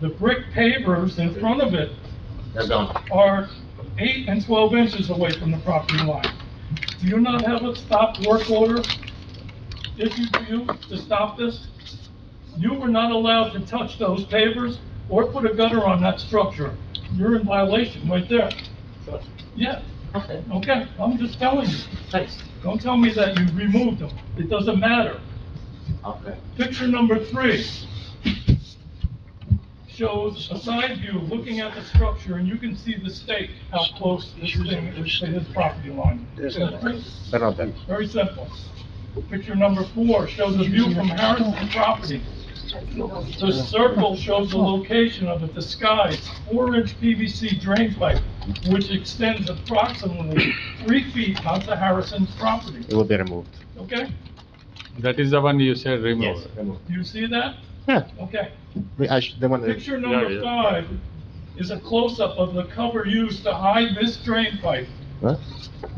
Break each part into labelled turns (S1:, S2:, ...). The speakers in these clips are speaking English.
S1: The brick pavers in front of it
S2: They're gone.
S1: are eight and 12 inches away from the property line. Do you not have a stop work order issued to you to stop this? You were not allowed to touch those pavers or put a gutter on that structure. You're in violation right there. Yeah,
S2: Okay,
S1: okay, I'm just telling you.
S2: thanks.
S1: Don't tell me that you removed them. It doesn't matter.
S2: Okay.
S1: Picture number three shows a side view looking at the structure, and you can see the stake, how close this thing is to his property line.
S3: There's no line.
S4: They're not there.
S1: Very simple. Picture number four shows a view from Harrison property. The circle shows the location of a disguised four-inch PVC drain pipe, which extends approximately three feet onto Harrison's property,
S4: It will be removed.
S1: okay?
S5: That is the one you said
S2: Yes,
S5: remove.
S2: remove.
S1: Do you see that?
S4: Yeah,
S1: Okay.
S4: we, I, sh- the one,
S1: Picture
S5: Yeah,
S1: number
S5: yeah.
S1: five is a close-up of the cover used to hide this drain pipe
S4: huh?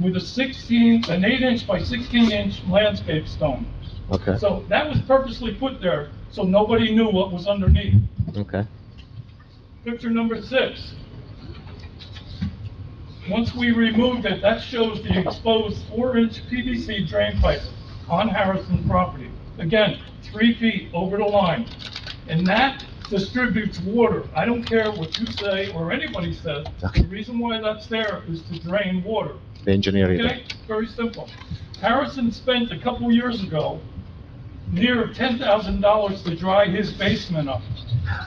S1: with a 16, an 8-inch by 16-inch landscape stone.
S4: Okay,
S1: So that was purposely put there, so nobody knew what was underneath.
S4: okay.
S1: Picture number six. Once we removed it, that shows the exposed four-inch PVC drain pipe on Harrison property. Again, three feet over the line. And that distributes water. I don't care what you say or anybody says. The reason why that's there is to drain water.
S4: The engineer
S1: Okay,
S4: either.
S1: very simple. Harrison spent a couple years ago near ten thousand dollars to dry his basement up.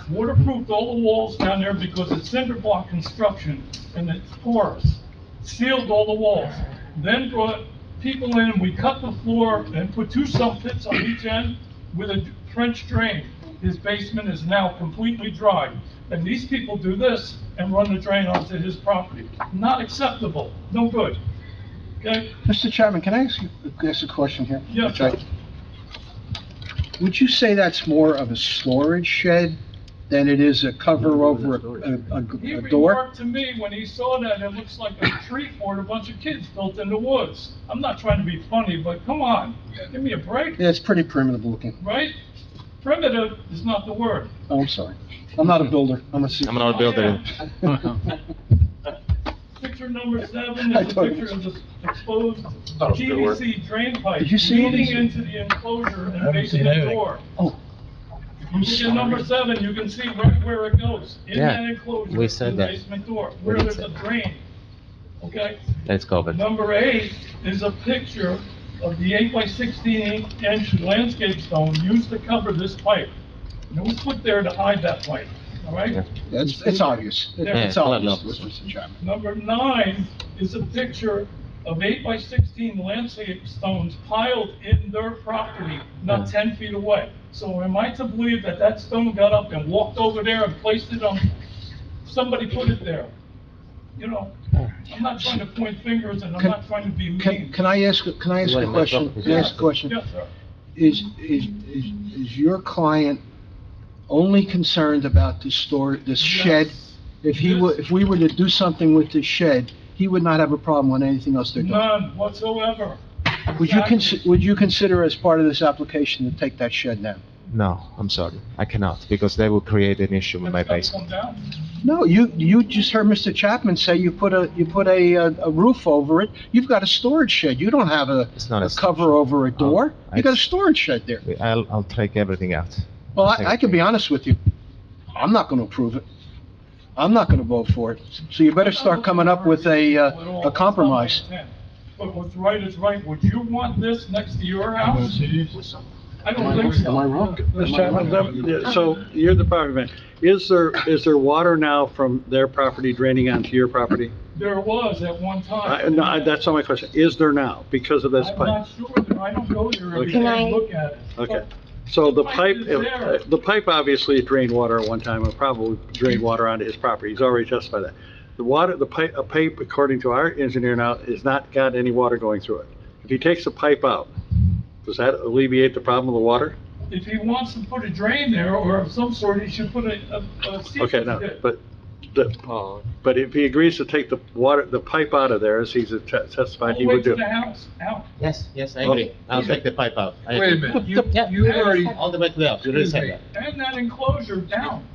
S1: Waterproofed all the walls down there because it's cinder block construction and it's porous. Sealed all the walls. Then brought people in, we cut the floor and put two sump pits on each end with a trench drain. His basement is now completely dry. And these people do this and run the drain onto his property. Not acceptable, no good. Okay,
S3: Mr. Chapman, can I ask you, ask a question here?
S1: Yeah.
S3: Which I- Would you say that's more of a storage shed than it is a cover over a, a-
S1: He
S3: a, a door?
S1: remarked to me when he saw that, it looks like a tree fort a bunch of kids built in the woods. I'm not trying to be funny, but come on, give me a break,
S3: Yeah, it's pretty primitive looking.
S1: right? Primitive is not the word.
S3: Oh, I'm sorry. I'm not a builder. I'm a.
S4: I'm not a builder.
S1: Picture number seven
S3: I
S1: is a
S3: thought it
S1: picture of
S3: was-
S1: the exposed
S2: That was a good word.
S1: PVC drain pipe
S3: Did you see it?
S1: leading into the enclosure and
S6: haven't
S1: facing
S6: seen
S1: the
S6: anything.
S1: door.
S3: Oh,
S1: You see at number seven, you can see right where it goes, in
S4: Yeah,
S1: that enclosure,
S4: we said
S1: the
S4: that.
S1: basement door, where
S4: did
S1: there's
S4: say
S1: a
S4: that.
S1: drain. Okay?
S4: Let's go, but.
S1: Number eight is a picture of the eight by sixteen inch landscape stone used to cover this pipe. And it was put there to hide that pipe, all
S4: Yeah.
S1: right?
S3: it's, it's obvious. It's
S4: Yeah, I
S3: obvious,
S4: love this.
S3: Mr. Chapman.
S1: Number nine is a picture of eight by sixteen landscape stones piled in their property, not
S4: Yeah.
S1: ten feet away. So am I to believe that that stone got up and walked over there and placed it on, somebody put it there? You know, I'm not trying to point fingers and I'm
S3: Can-
S1: not trying to be mean.
S3: Can, can I ask, can I ask
S4: Wait,
S3: a
S4: my
S3: question?
S4: property.
S3: Can I ask a question?
S1: Yes, sir.
S3: Is, is, is is your client only concerned about this store, this shed?
S1: Yes.
S3: If he were, if we were to do something with this shed, he would not have a problem with anything else they're doing?
S1: None whatsoever.
S3: Would you
S1: Exactly.
S3: consi, would you consider as part of this application to take that shed down?
S4: No, I'm sorry. I cannot, because they will create an issue with my
S1: That's gotta
S4: basement.
S1: come down.
S3: No, you, you just heard Mr. Chapman say you put a, you put a, uh, a roof over it. You've got a storage shed. You don't have a,
S4: It's not a
S3: a
S4: Oh, storage
S3: cover over a door.
S4: I-
S3: You got a storage shed there.
S4: I'll, I'll take everything out.
S3: Well, I, I can be honest with you. I'm not gonna approve it. I'm not gonna vote for it. So you better start coming up with a, uh, a compromise.
S1: But what's right is right. Would you want this next to your house? I don't think so.
S3: Am I wrong?
S6: Mr. Chapman, let- yeah, so you're the property man. Is there, is there water now from their property draining onto your property?
S1: There was at one
S6: I,
S1: time.
S6: no, I- that's not my question. Is there now because of this
S1: I'm
S6: pipe?
S1: not sure. there. I don't go there every day
S6: Okay.
S7: Can
S1: and
S7: I-
S1: look at it.
S6: Okay. So the
S1: Pipe
S6: pipe,
S1: is there.
S6: uh, the pipe obviously drained water at one time and probably drained water onto his property. He's already justified that. The water, the pipe, a pipe, according to our engineer now, has not got any water going through it. If he takes the pipe out, does that alleviate the problem of the water?
S1: But If he wants to put a drain there or of some sort, he should put a, a, a seep
S6: Okay, no,
S1: pit.
S6: but the, But if he agrees to take the water, the pipe out of there, as he's testified,
S1: All
S6: he
S1: the way
S6: would
S1: to
S6: do.
S1: the house, out.
S4: Yes, yes, I agree. I'll
S6: Okay.
S4: take the pipe out. I
S8: Wait a
S4: agree.
S8: minute, you,
S4: Yeah,
S8: you already,
S4: all the way to the house. You already said that.
S1: And that enclosure down.